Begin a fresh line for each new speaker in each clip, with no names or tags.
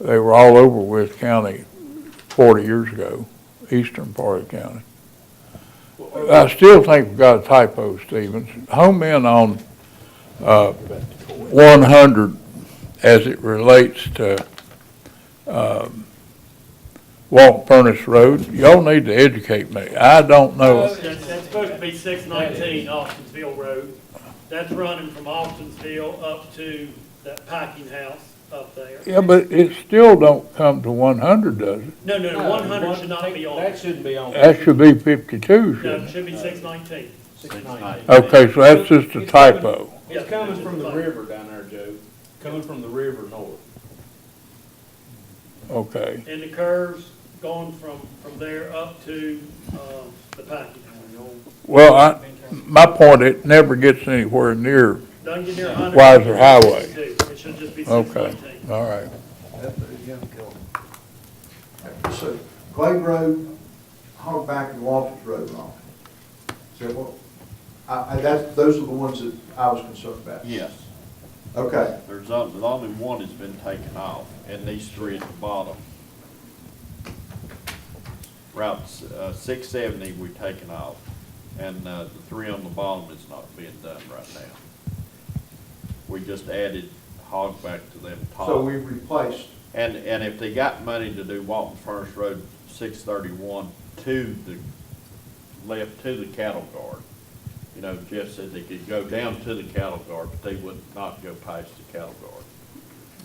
They were all over West County forty years ago, eastern part of the county. I still think we've got a typo, Stevens. Home in on, uh, one hundred as it relates to, um, Walton Furnace Road. Y'all need to educate me. I don't know.
That's, that's supposed to be six nineteen Austinville Road. That's running from Austinville up to that packing house up there.
Yeah, but it still don't come to one hundred, does it?
No, no, no, one hundred should not be on.
That
it.
shouldn't be on.
That should be fifty-two,
No,
shouldn't
it
it?
should be six nineteen.
Six ninety.
Okay, so that's just a
It's coming-
typo.
It's coming from the river down there, Joe, coming from the river north.
Okay.
And the curves going from, from there up to, um, the packing house.
Well, I, my point, it never gets anywhere near,
Don't get near a hundred.
Wiser Highway.
It should just be six
okay,
nineteen.
all right.
So Glade Road, Hogback and Walters Road wrong. So what, I, I, that's, those are the ones that I was concerned about.
Yes,
Okay,
there's only, the only one has been taken off, and these three at the bottom. Route, s- uh, six seventy we've taken off, and, uh, the three on the bottom is not being done right now. We just added hog back to them top.
so we replaced,
And, and if they got money to do Walton Furnace Road six thirty-one to the, left to the cattle guard, you know, Jeff said they could go down to the cattle guard, but they would not go past the cattle guard.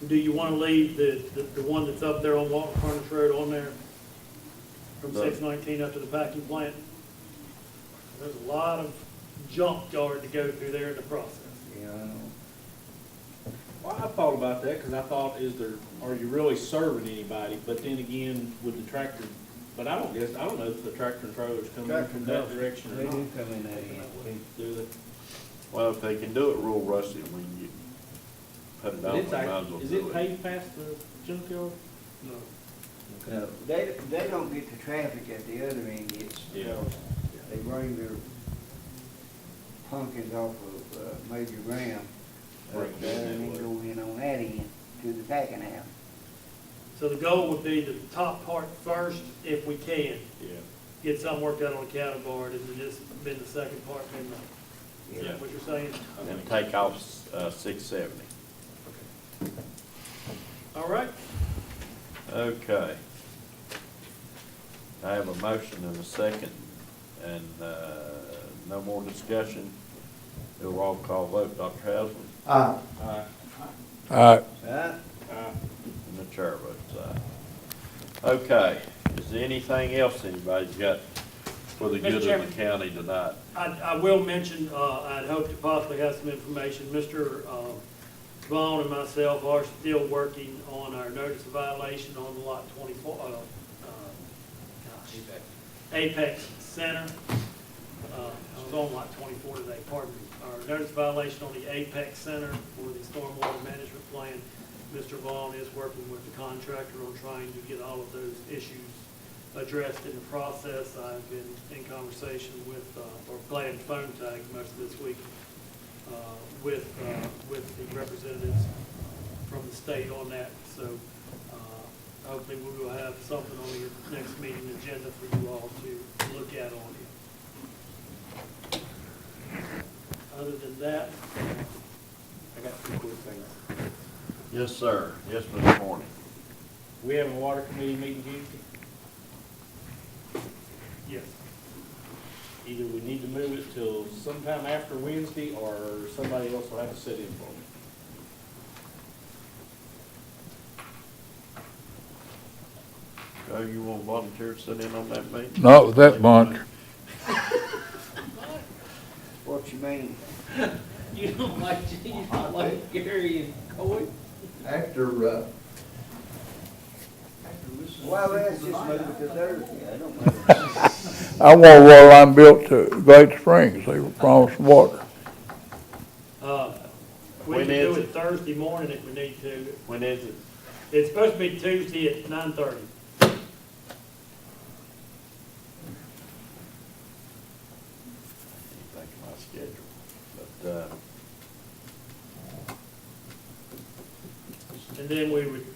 Do you wanna leave the, the, the one that's up there on Walton Furnace Road on there? From
No.
six nineteen up to the packing plant? There's a lot of junkyard to go through there in the process.
Well, I thought about that, cause I thought, is there, are you really serving anybody? But then again, with the tractor, but I don't guess, I don't know if the tractor and trailer's coming in from that direction or
They
not.
do come in that end.
Do they?
Well, if they can do it real rusty, when you put it
But
out, we
it's
might as
act-
well
Is
do
it
it.
paved past the junkyard? No.
No, They, they don't get the traffic at the other end, it's,
Yeah.
they bring their pumpkins off of uh, Major Graham. up
Right,
there, And
that
they
way.
go in on that end to the packing house.
So the goal would be the top part first, if we can,
Yeah,
get some worked out on the cattle guard, and then just bend the second part, and, is
Yeah.
that what you're saying?
and take off, uh, six seventy.
All right,
Okay. I have a motion and a second, and, uh, no more discussion. Do a roll call vote, Dr. Haslam,
uh,
Aye.
All right,
Right?
Aye.
and the chair votes aye. Okay, is there anything else anybody's got for the
Mr.
good of
Chairman.
the county tonight?
I, I will mention, uh, I'd hoped to possibly have some information. Mr. um, Vaughn and myself are still working on our notice of violation on lot twenty-four, uh, uh, gosh. Apex Center. Uh, I was on lot twenty-four today, pardon me. Our notice violation on the Apex Center for the stormwater management plan. Mr. Vaughn is working with the contractor on trying to get all of those issues addressed in the process. I've been in conversation with, uh, or playing phone tag most of this week, uh, with, uh, with the representatives from the state on that. So uh, hopefully we will have something on your next meeting agenda for you all to look at on it. Other than that,
I got two quick things.
Yes, sir. Yes, Mr. Morning.
We having a water committee meeting Tuesday?
yes.
Either we need to move it till sometime after Wednesday, or somebody else will have to sit in for me.
Joe, you want to volunteer to sit in on that meeting?
not with that bunch.
What you mean?
You don't like, you don't like Gary and Coy?
after, uh,
Why, let's just move it to Thursday, I don't know.
I want a water line built to Glade Springs. They were promised water.
Uh, We
When
can do
is
it
it?
Thursday morning if we need to.
When is it?
It's supposed to be Tuesday at nine thirty.
Think of my schedule, but, uh,
And then we would